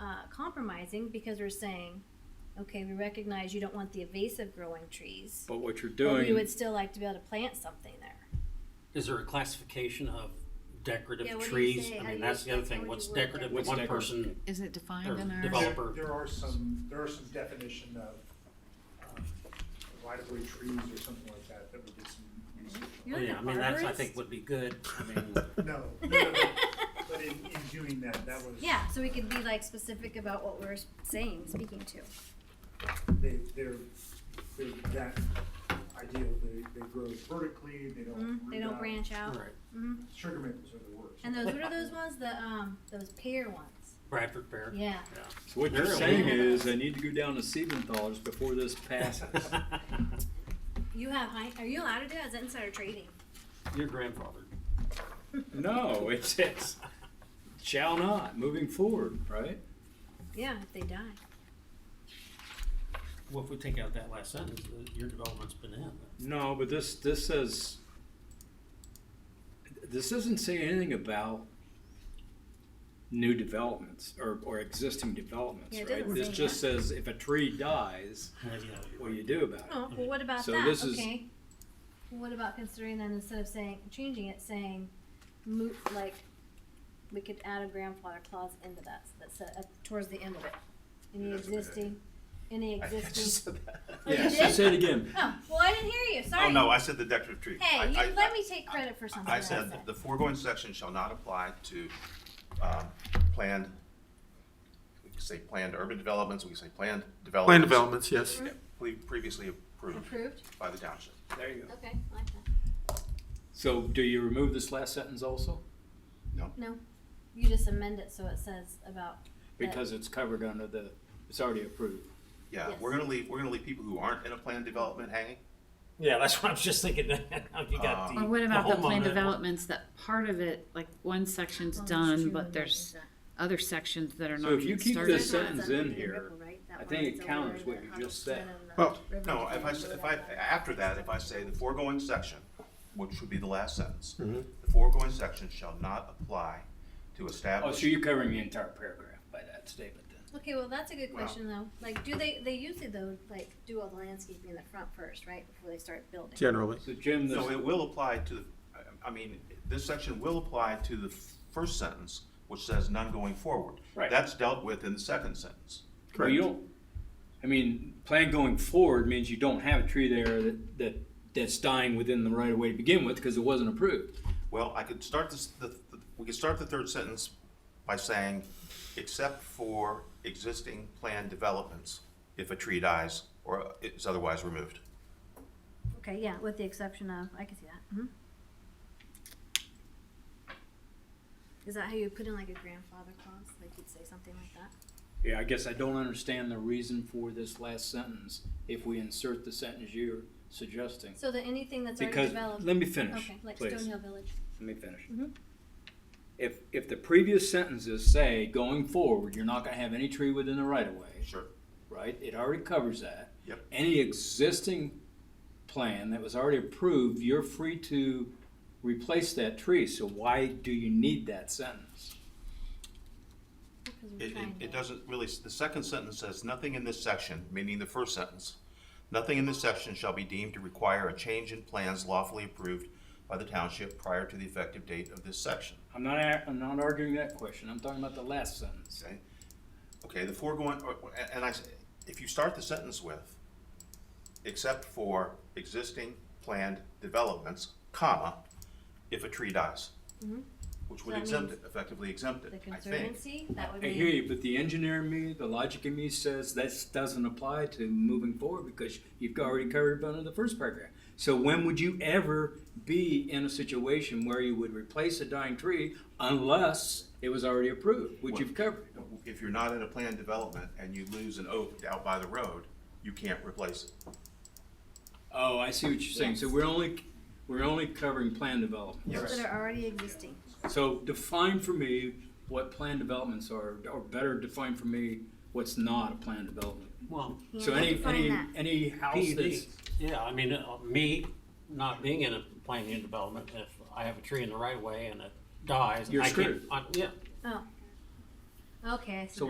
uh, compromising because we're saying, okay, we recognize you don't want the invasive growing trees, But what you're but we doing, would still like to be able to plant something there. Is there a classification of decorative Yeah, what do you trees? say? How I do mean, you- that's the other thing, how would what's you word decorative that? to What's one decorative? person Is it or defined in our? developer? There are some, there are some definition of um, right-of-way trees or something like that, that we did some research on. You're Yeah, I an mean, that's, I think arborist? would be good, I mean, Mm-hmm. No, no, no, no. but in, in doing that, that was. Yeah, so we could be like specific about what we're saying, speaking to. They, they're, they're that ideal, they, they grow vertically, they don't. Mhm, They root don't out. branch all out. right, Mhm. Sugar maples are the worst. And those, what are those ones? The, um, those pear ones? Bradford Fair. Yeah. so what you're Really? saying is they need to go down to Siebenthaler's before this passes. You have high, are you allowed to do that? Is that insider trading? Your grandfather. No, it says, shall not, moving forward, right? Yeah, if they die. Well, if we take out that last sentence, uh, your development's been in. No, but this, this says, this doesn't say anything about new developments or, or existing developments, Yeah, it right? doesn't This say just says if a tree dies, Yeah, yeah, you're what do right. you do about it? Oh, well, what about So that? this is- okay. Well, what about considering then instead of saying changing it, saying move like we could add a grandfather clause into that that's uh, towards the end of it. Any That's a good existing, any existing. Oh, you Yeah, did? say it again. Oh, well, I didn't hear you. Sorry. Oh, no, I said the decorative tree. I- Hey, you I- let me take credit for something. I said, that the foregoing section shall not apply to, um, planned, we could say planned urban developments, we could say planned developments. Plan developments, yes. pre- Previously approved approved. by the township. There you go. Okay, I like that. So do you remove this last sentence also? No, you just amend it so it says about. uh, that- Because it's covered under the, it's already approved. Yeah, we're gonna leave, we're gonna leave people who aren't in a planned development hanging. Yeah, that's what I was just thinking, how you got the. Um, Or Uh, what about the plan homeowner. developments that part of it, like one section's Oh, that's done, true, but that there's is that. other sections that are So not if you even keep started? this There's sentence not in something here, Ripple, right? That I one think that's it over counts what the you just Hubbardston said. and the Well- river No, that's if I, in s- the if I, back. after that, if I say the foregoing section, which would be the last sentence, the foregoing section shall not apply to Oh, establish. so you're covering the entire paragraph by that statement then? Okay, well, that's a good Well- question though. Like, do they, they usually though, like, do all the landscaping in the front first, right, before they start building? Generally. So Jim, this, No, it will apply to, I- I mean, this section will apply to the first sentence, which says none going forward. Right. That's dealt with in the second sentence. well, you don't, I mean, plan going forward means you don't have a tree there that, that, that's dying within the right of way to begin with because it wasn't approved. Well, I could start this, the, the- we could start the third sentence by saying, except for existing planned developments, if a tree dies or is otherwise removed. Okay, yeah, with the exception of, I can see that, mhm. Is that how you put in like a grandfather clause? Like you'd say something like that? Yeah, I guess I don't understand the reason for this last sentence if we insert the sentence you're suggesting. So that anything that's already Because, developed. let me finish, Okay, like please. Stonehill Village. Let me finish. Mhm. If, if the previous sentences say, going forward, you're not gonna have any tree within the right of way, Sure. right? It already covers that. Yep. Any existing plan that was already approved, you're free to replace that tree, so why do you need that sentence? Because we're It, it, trying to- it doesn't really, the second sentence says, nothing in this section, meaning the first sentence, nothing in this section shall be deemed to require a change in plans lawfully approved by the township prior to the effective date of this section. I'm not, ar- I'm not arguing that question, I'm talking about the last sentence. Okay, okay, the foregoing, or- or- and I, s- if you start the sentence with, except for existing planned developments, comma, if a tree dies. Which would So Mm-hmm. that exempt means it, effectively exempt The it, I think. conservancy, that would I be. hear you, but the engineer in me, the logic in me says this doesn't apply to moving forward because you've already covered it under the first paragraph. So when would you ever be in a situation where you would replace a dying tree unless it was already approved, which you've covered? If you're not in a planned development and you lose an oak out by the road, you can't replace it. Oh, I see what you're saying. So we're only, we're only covering plan development. Those that are already existing. So define for me what plan developments are, or better define for me what's not a plan development. Well, So Yeah, any, define any, that. any house that's, PUD, yeah, I mean, uh, me not being in a planning and development, if I have a tree in the right of way and it dies. You're I can't- screwed. I- Yeah, Oh. Okay, I see. So